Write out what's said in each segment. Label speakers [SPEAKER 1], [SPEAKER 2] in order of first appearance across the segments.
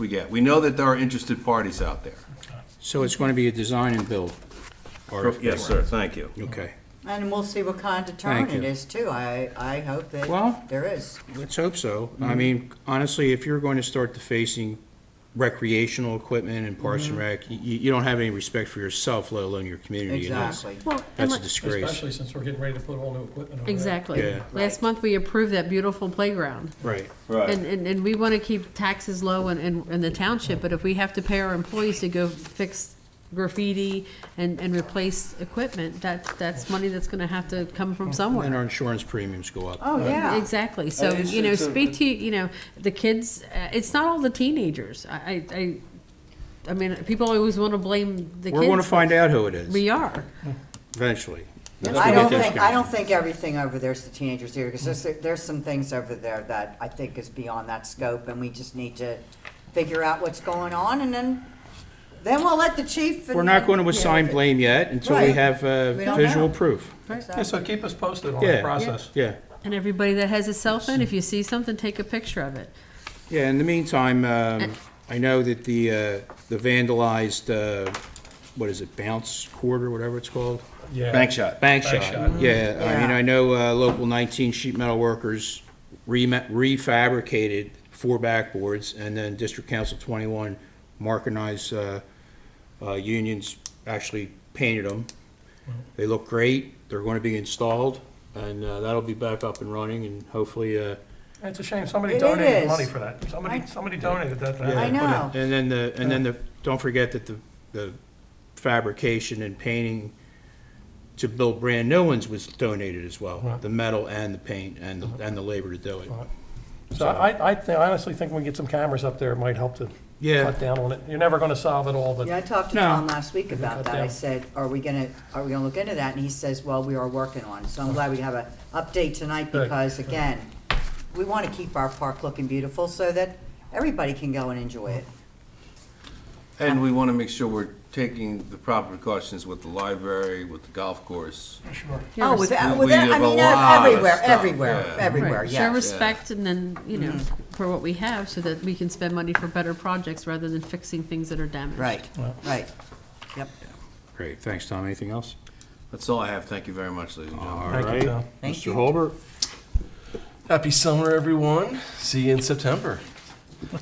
[SPEAKER 1] we get. We know that there are interested parties out there.
[SPEAKER 2] So it's going to be a design and build?
[SPEAKER 1] Yes, sir, thank you.
[SPEAKER 2] Okay.
[SPEAKER 3] And we'll see what kind of turn
[SPEAKER 2] Thank
[SPEAKER 3] it
[SPEAKER 2] you.
[SPEAKER 3] is too. I, I hope
[SPEAKER 2] Well-
[SPEAKER 3] that there is.
[SPEAKER 2] Let's hope so. I mean, honestly, if you're going to start defacing recreational equipment and Parks
[SPEAKER 3] Mm-hmm.
[SPEAKER 2] and Rec, you, you don't have any respect for yourself, let alone your community. and that's-
[SPEAKER 3] Exactly.
[SPEAKER 4] Well, and
[SPEAKER 2] That's a
[SPEAKER 4] like-
[SPEAKER 2] disgrace.
[SPEAKER 5] Especially since we're getting ready to put all new equipment over there.
[SPEAKER 4] exactly.
[SPEAKER 2] Yeah.
[SPEAKER 4] Last month, we approved that beautiful playground.
[SPEAKER 2] Right.
[SPEAKER 4] And, and, and we want to keep taxes low in, in, in the township, but if we have to pay our employees to go fix graffiti and, and replace equipment, that, that's money that's going to have to come from somewhere.
[SPEAKER 2] And our insurance premiums go up.
[SPEAKER 3] Oh, yeah.
[SPEAKER 4] Exactly. So,
[SPEAKER 1] it's-
[SPEAKER 4] you know,
[SPEAKER 1] it's a-
[SPEAKER 4] speak to, you know, the kids, uh, it's not all the teenagers. I, I, I- I mean, people always want to blame the kids.
[SPEAKER 2] We're going to find out who it
[SPEAKER 4] We
[SPEAKER 2] is
[SPEAKER 4] are.
[SPEAKER 2] eventually. That's
[SPEAKER 3] I
[SPEAKER 2] what
[SPEAKER 3] don't
[SPEAKER 2] it is
[SPEAKER 3] think,
[SPEAKER 2] gonna
[SPEAKER 3] I
[SPEAKER 2] be.
[SPEAKER 3] don't think everything over there's the teenagers here, because there's, there's some things over there that I think is beyond that scope, and we just need to figure out what's going on, and then, then we'll let the chief. and-
[SPEAKER 2] We're not going to assign blame yet until we
[SPEAKER 3] Right.
[SPEAKER 2] have uh,
[SPEAKER 3] We don't
[SPEAKER 2] visual
[SPEAKER 3] know.
[SPEAKER 2] proof.
[SPEAKER 5] Yeah,
[SPEAKER 3] Exactly.
[SPEAKER 5] so keep us posted on
[SPEAKER 2] Yeah.
[SPEAKER 5] the process.
[SPEAKER 2] Yeah.
[SPEAKER 4] And everybody that has a cell phone, if you see something, take a picture of it.
[SPEAKER 2] Yeah, in the meantime, um, I know that the, uh, the vandalized, uh, what is it, bounce court or whatever it's called?
[SPEAKER 5] Yeah.
[SPEAKER 1] Bank shot.
[SPEAKER 2] Bank
[SPEAKER 5] Bank shot.
[SPEAKER 2] shot, yeah. I mean,
[SPEAKER 3] Yeah.
[SPEAKER 2] I know uh, local 19 sheet metal workers rema- refabricated four backboards, and then District Council 21 Markinized uh, uh, unions actually painted them.
[SPEAKER 5] Mm-hmm.
[SPEAKER 2] They look great, they're going to be installed, and uh, that'll be back up and running, and hopefully, uh,
[SPEAKER 5] It's a shame, somebody
[SPEAKER 3] It
[SPEAKER 5] donated
[SPEAKER 3] is.
[SPEAKER 5] money for that. Somebody, somebody donated that. to
[SPEAKER 3] I
[SPEAKER 5] happen.
[SPEAKER 3] know.
[SPEAKER 2] And then the, and then the, don't forget that the, the fabrication and painting to build brand new ones was donated as well.
[SPEAKER 5] Right. Uh-huh.
[SPEAKER 2] The metal and the paint and, the and the labor to do it.
[SPEAKER 5] Right. So I, I thi- I honestly think when we get some cameras up there, it might help to
[SPEAKER 2] Yeah.
[SPEAKER 5] cut down on it. You're never gonna solve it all, but
[SPEAKER 3] Yeah, I talked to
[SPEAKER 2] No.
[SPEAKER 3] Tom last week about
[SPEAKER 5] cut
[SPEAKER 3] that. I
[SPEAKER 5] down.
[SPEAKER 3] said, are we gonna, are we gonna look into that? And he says, well, we are working on it. So
[SPEAKER 1] Oh.
[SPEAKER 3] I'm glad we have a update tonight
[SPEAKER 5] Good.
[SPEAKER 3] because, again, we wanna keep our park looking beautiful so that everybody can go and enjoy it.
[SPEAKER 1] And we want to make sure we're taking the proper precautions with the library, with the golf course.
[SPEAKER 3] Oh, with,
[SPEAKER 1] We-
[SPEAKER 3] with,
[SPEAKER 1] we
[SPEAKER 3] I
[SPEAKER 1] have a
[SPEAKER 3] mean, uh,
[SPEAKER 1] lot of
[SPEAKER 3] everywhere,
[SPEAKER 1] stuff,
[SPEAKER 3] everywhere,
[SPEAKER 1] yeah.
[SPEAKER 3] everywhere,
[SPEAKER 4] Right. Show
[SPEAKER 3] yes.
[SPEAKER 4] respect and then, you know, for what we have so that we can spend money for better projects rather than fixing things that are damaged.
[SPEAKER 3] Right, right. Yep.
[SPEAKER 2] Great, thanks, Tom. Anything else?
[SPEAKER 1] That's all I have. Thank you very much, ladies and gentlemen.
[SPEAKER 2] All
[SPEAKER 5] Thank you,
[SPEAKER 2] right.
[SPEAKER 5] Tom.
[SPEAKER 3] Thank
[SPEAKER 2] Mr.
[SPEAKER 3] you.
[SPEAKER 2] Holbert?
[SPEAKER 6] Happy summer, everyone. See you in September.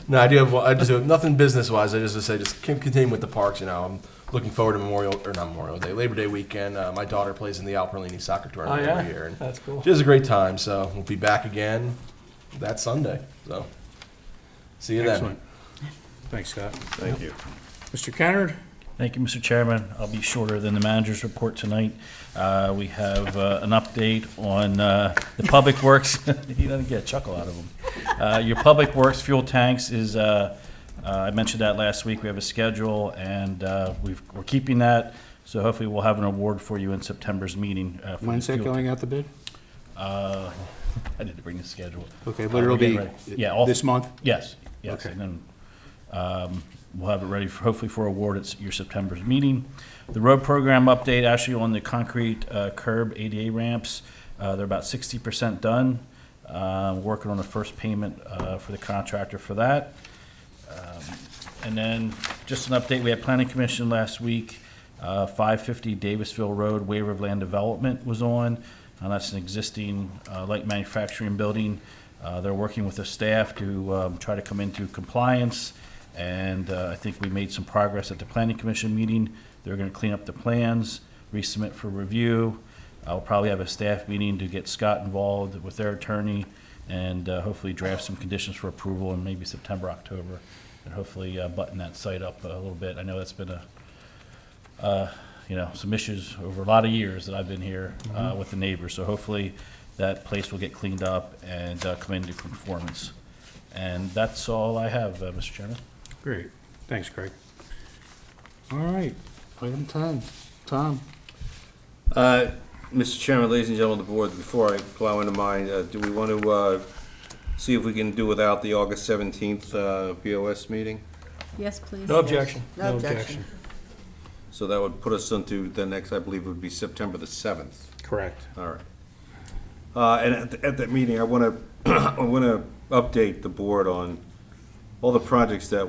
[SPEAKER 6] No, I do have. I just have nothing business wise. I just would say just keep continuing with the parks. You know, I'm looking forward to Memorial or not Memorial Day, Labor Day weekend. Uh, my daughter plays in the Alperlini soccer tournament
[SPEAKER 5] Oh, yeah?
[SPEAKER 6] every year, and
[SPEAKER 5] That's cool.
[SPEAKER 6] She has a great time. So we'll be back again that Sunday. So see you then.
[SPEAKER 2] Excellent. Thanks, Scott. Thank you. Mr. Kennard?
[SPEAKER 7] Thank you, Mr. Chairman. I'll be shorter than the manager's report tonight. Uh, We have uh, an update on uh, the Public Works, he doesn't get a chuckle out of him. Uh, Your Public Works fuel tanks is, uh, uh, I mentioned that last week, we have a schedule, and uh, we've- we're keeping that, so hopefully we'll have an award for you in September's meeting. uh, for the
[SPEAKER 2] When's that
[SPEAKER 7] fuel-
[SPEAKER 2] going out the bid?
[SPEAKER 7] uh, I need to bring the schedule.
[SPEAKER 2] Okay,
[SPEAKER 7] Uh,
[SPEAKER 2] but it'll
[SPEAKER 7] we're getting
[SPEAKER 2] be
[SPEAKER 7] ready. Yeah, all-
[SPEAKER 2] this month?
[SPEAKER 7] Yes, yes,
[SPEAKER 2] Okay.
[SPEAKER 7] and then, um, we'll have it ready for, hopefully for award at your September's meeting. The road program update, actually on the concrete uh, curb ADA ramps, uh, they're about sixty percent done. Uh, working on the first payment, uh, for the contractor for that. And then, just an update, we had planning commission last week, uh, 550 Davisville Road, waiver of land development was on. And that's an existing uh, light manufacturing building. Uh, They're working with the staff to um, try to come into compliance. And uh, I think we made some progress at the planning commission meeting. They're going to clean up the plans, resubmit for review. I'll probably have a staff meeting to get Scott involved with their attorney and uh, hopefully draft some conditions for approval in maybe September, October, and hopefully uh, button that site up a little bit. I know that's been a, uh, you know, some issues over a lot of years that I've been here uh, with the neighbors. So hopefully that place will get cleaned up and uh, come into conformance. And that's all I have, uh, Mr. Chairman.
[SPEAKER 2] Great, thanks, Craig. All right, item 10, Tom.
[SPEAKER 1] Uh, Mr. Chairman, ladies and gentlemen of the board, before I plow into mine, uh, do we want to uh, see if we can do without the August 17th uh, BOS meeting?
[SPEAKER 4] Yes, please.
[SPEAKER 5] No objection.
[SPEAKER 3] No objection.
[SPEAKER 1] So that would put us into the next, I believe, would be September the 7th.
[SPEAKER 2] Correct.
[SPEAKER 1] All right. Uh, And at, at that meeting, I want to, I want to update the board on all the projects that